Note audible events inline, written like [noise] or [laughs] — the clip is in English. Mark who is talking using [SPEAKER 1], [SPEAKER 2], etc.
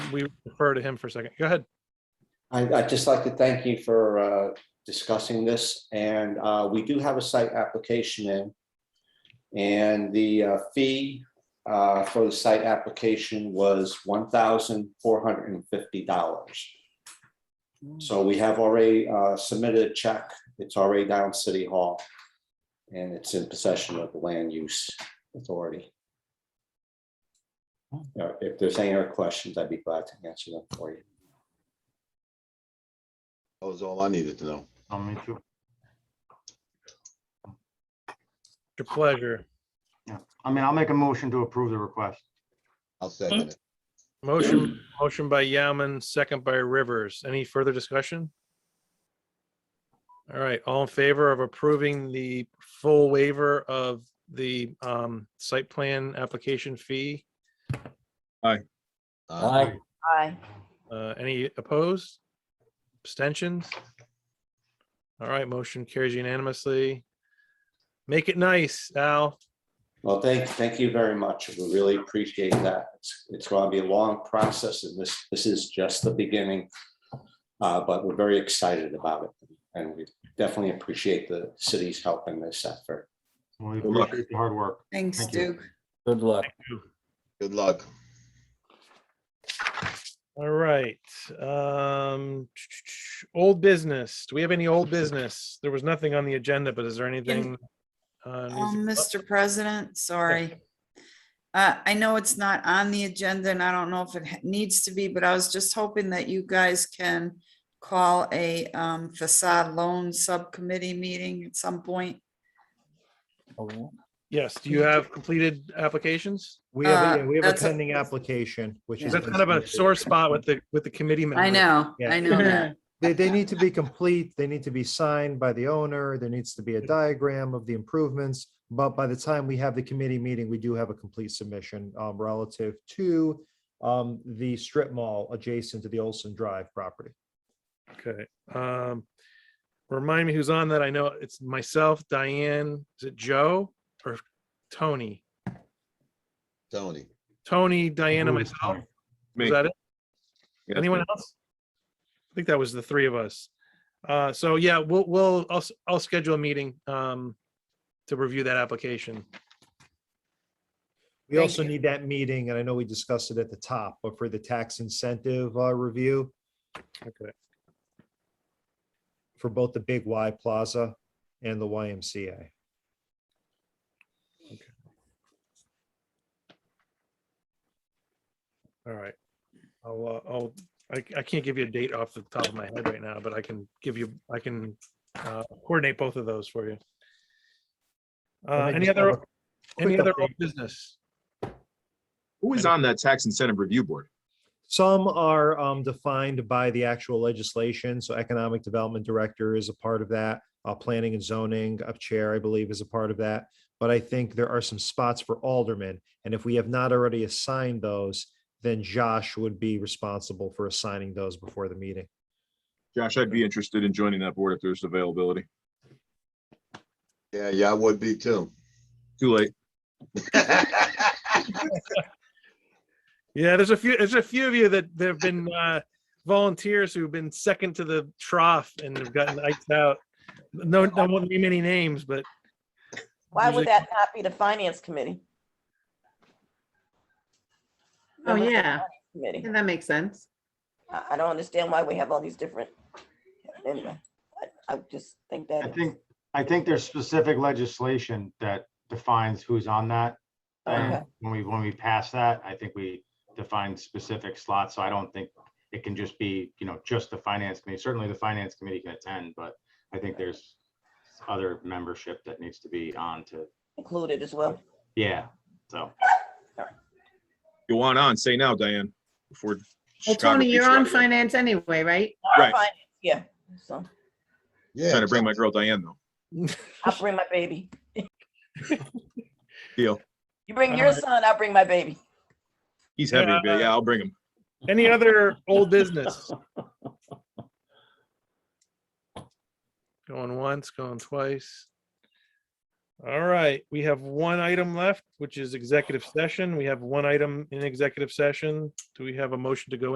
[SPEAKER 1] we refer to him for a second. Go ahead.
[SPEAKER 2] I, I'd just like to thank you for uh, discussing this, and uh, we do have a site application in. And the uh, fee uh, for the site application was one thousand four hundred and fifty dollars. So we have already uh, submitted a check. It's already down City Hall. And it's in possession of the Land Use Authority. Now, If there's any other questions, I'd be glad to answer them for you.
[SPEAKER 3] That was all I needed to know.
[SPEAKER 4] I'll meet you.
[SPEAKER 1] Your pleasure.
[SPEAKER 4] I mean, I'll make a motion to approve the request.
[SPEAKER 3] I'll second it.
[SPEAKER 1] Motion, motion by Yaman, second by Rivers. Any further discussion? All right, all in favor of approving the full waiver of the um, site plan application fee?
[SPEAKER 3] Uh,
[SPEAKER 5] Aye.
[SPEAKER 1] Uh, Any opposed? Abstentions? All right, motion carries unanimously. Make it nice, Al.
[SPEAKER 2] Well, thank, thank you very much. We really appreciate that. It's, it's going to be a long process and this, this is just the beginning. Uh, but we're very excited about it and we definitely appreciate the city's help in this effort.
[SPEAKER 4] We
[SPEAKER 3] Good luck.
[SPEAKER 4] appreciate the hard work.
[SPEAKER 6] Thanks,
[SPEAKER 4] Thank you.
[SPEAKER 6] Duke.
[SPEAKER 7] Good luck.
[SPEAKER 3] Good luck.
[SPEAKER 1] All right. Um, old business. Do we have any old business? There was nothing on the agenda, but is there anything? uh, needs
[SPEAKER 6] Um,
[SPEAKER 1] to-
[SPEAKER 6] Mr. President, sorry. Uh, I know it's not on the agenda and I don't know if it ha- needs to be, but I was just hoping that you guys can call a um, facade loan subcommittee meeting at some point.
[SPEAKER 7] Oh,
[SPEAKER 1] Yes, do you have completed applications?
[SPEAKER 8] We have,
[SPEAKER 6] Uh,
[SPEAKER 8] a- yeah, we have a
[SPEAKER 6] that's a-
[SPEAKER 8] pending application, which is.
[SPEAKER 1] That's kind of a sore spot with the, with the committee.
[SPEAKER 6] I
[SPEAKER 1] members.
[SPEAKER 6] know,
[SPEAKER 8] Yeah.
[SPEAKER 6] I know that.
[SPEAKER 8] They, they need to [laughs] be complete. They need to be signed by the owner. There needs to be a diagram of the improvements. But by the time we have the committee meeting, we do have a complete submission um, relative to um, the strip mall adjacent to the Olson Drive property.
[SPEAKER 1] Okay. Um, remind me who's on that. I know it's myself, Diane, is it Joe or Tony?
[SPEAKER 3] Tony.
[SPEAKER 1] Tony, Diane, and
[SPEAKER 4] Approve the
[SPEAKER 1] myself.
[SPEAKER 4] plan.
[SPEAKER 1] Is that it? Anyone else? I think that was the three of us. Uh, so yeah, we'll, we'll, I'll, s- I'll schedule a meeting, um, to review that application.
[SPEAKER 8] We
[SPEAKER 6] Thank
[SPEAKER 8] also
[SPEAKER 6] you.
[SPEAKER 8] need that meeting, and I know we discussed it at the top, but for the tax incentive uh, review
[SPEAKER 1] Okay.
[SPEAKER 8] for both the Big Y Plaza and the YMCA.
[SPEAKER 1] All right. I'll, uh, I'll, I, I can't give you a date off the top of my head right now, but I can give you, I can, uh, coordinate both of those for you.
[SPEAKER 8] Let
[SPEAKER 1] Uh,
[SPEAKER 8] me
[SPEAKER 1] any
[SPEAKER 8] just
[SPEAKER 1] other,
[SPEAKER 8] have a
[SPEAKER 1] any
[SPEAKER 8] quick
[SPEAKER 1] other old
[SPEAKER 8] update.
[SPEAKER 1] business?
[SPEAKER 9] Who is on that tax incentive review board?
[SPEAKER 8] Some are um, defined by the actual legislation, so economic development director is a part of that. Uh, planning and zoning up chair, I believe, is a part of that. But I think there are some spots for aldermen, and if we have not already assigned those, then Josh would be responsible for assigning those before the meeting.
[SPEAKER 9] Josh, I'd be interested in joining that board if there's availability.
[SPEAKER 3] Yeah, yeah, I would be too.
[SPEAKER 9] Too late.
[SPEAKER 1] Yeah, there's a few, there's a few of you that there have been uh, volunteers who've been second to the trough and have gotten iced out. No, I won't name any names, but
[SPEAKER 5] Why
[SPEAKER 1] Usually-
[SPEAKER 5] would that not be the finance committee?
[SPEAKER 10] [laughs] Oh,
[SPEAKER 5] Members of the
[SPEAKER 10] yeah.
[SPEAKER 5] Finance Committee.
[SPEAKER 10] Yeah, that makes sense.
[SPEAKER 5] I, I don't understand why we have all these different, anyway, I, I just think
[SPEAKER 4] I
[SPEAKER 5] that.
[SPEAKER 4] think, I think there's specific legislation that defines who's on that.
[SPEAKER 5] Okay.
[SPEAKER 4] And when we, when we pass that, I think we define specific slots. So I don't think it can just be, you know, just the finance committee. Certainly the finance committee can attend, but I think there's other membership that needs to be on to,
[SPEAKER 5] Included as well.
[SPEAKER 4] yeah, so.
[SPEAKER 9] You want on, say now, Diane, before.
[SPEAKER 10] Well,
[SPEAKER 9] Chicago
[SPEAKER 10] Tony,
[SPEAKER 9] beats
[SPEAKER 10] you're
[SPEAKER 9] you
[SPEAKER 10] on
[SPEAKER 9] out here.
[SPEAKER 10] finance anyway, right?
[SPEAKER 5] Our
[SPEAKER 9] Right.
[SPEAKER 5] finance, Yeah, so
[SPEAKER 3] [laughs] Yeah,
[SPEAKER 9] Trying to bring my girl Diane, though.
[SPEAKER 5] I'll bring my baby.
[SPEAKER 9] Deal.
[SPEAKER 5] You bring your
[SPEAKER 1] Alright.
[SPEAKER 5] son, I'll bring my baby.
[SPEAKER 9] He's heavy, but yeah, I'll bring him.
[SPEAKER 1] any other old business? Going once, going twice. All right, we have one item left, which is executive session. We have one item in executive session. Do we have a motion to go